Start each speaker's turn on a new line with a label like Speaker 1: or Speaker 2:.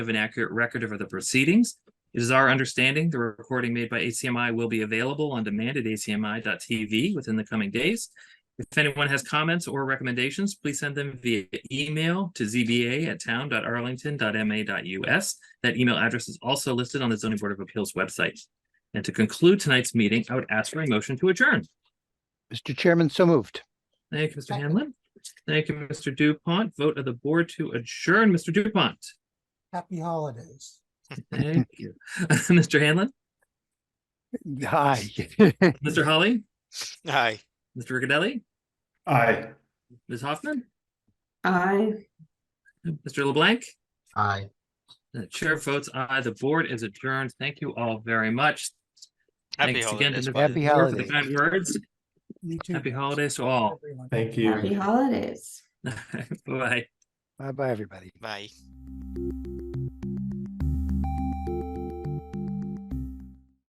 Speaker 1: of an accurate record of the proceedings. It is our understanding the recording made by ACMI will be available on demand at acmi.tv within the coming days. If anyone has comments or recommendations, please send them via email to zba@town.arlington.ma.us. That email address is also listed on the zoning board of appeals website. And to conclude tonight's meeting, I would ask for a motion to adjourn.
Speaker 2: Mr. Chairman, so moved.
Speaker 1: Thank you, Mr.
Speaker 3: Second.
Speaker 1: Hanlon. Thank you, Mr. Dupont. Vote of the board to adjourn, Mr. Dupont.
Speaker 3: Happy holidays.
Speaker 1: Thank you. Mr. Hanlon,
Speaker 2: Hi.
Speaker 1: Mr. Holly,
Speaker 4: Aye.
Speaker 1: Mr. Riccadelli,
Speaker 5: Aye.
Speaker 1: Ms. Hoffman,
Speaker 6: Aye.
Speaker 1: Mr. LeBlanc.
Speaker 3: Aye.
Speaker 1: The chair votes aye. The board is adjourned. Thank you all very much.
Speaker 4: Happy
Speaker 1: Thanks again to
Speaker 4: holidays.
Speaker 1: the
Speaker 4: Bob.
Speaker 2: Happy
Speaker 1: board for the
Speaker 2: holidays.
Speaker 1: kind words.
Speaker 3: You too.
Speaker 1: Happy holidays to all.
Speaker 3: Everyone.
Speaker 5: Thank you.
Speaker 6: Happy holidays.
Speaker 1: Bye.
Speaker 2: Bye-bye, everybody.
Speaker 4: Bye.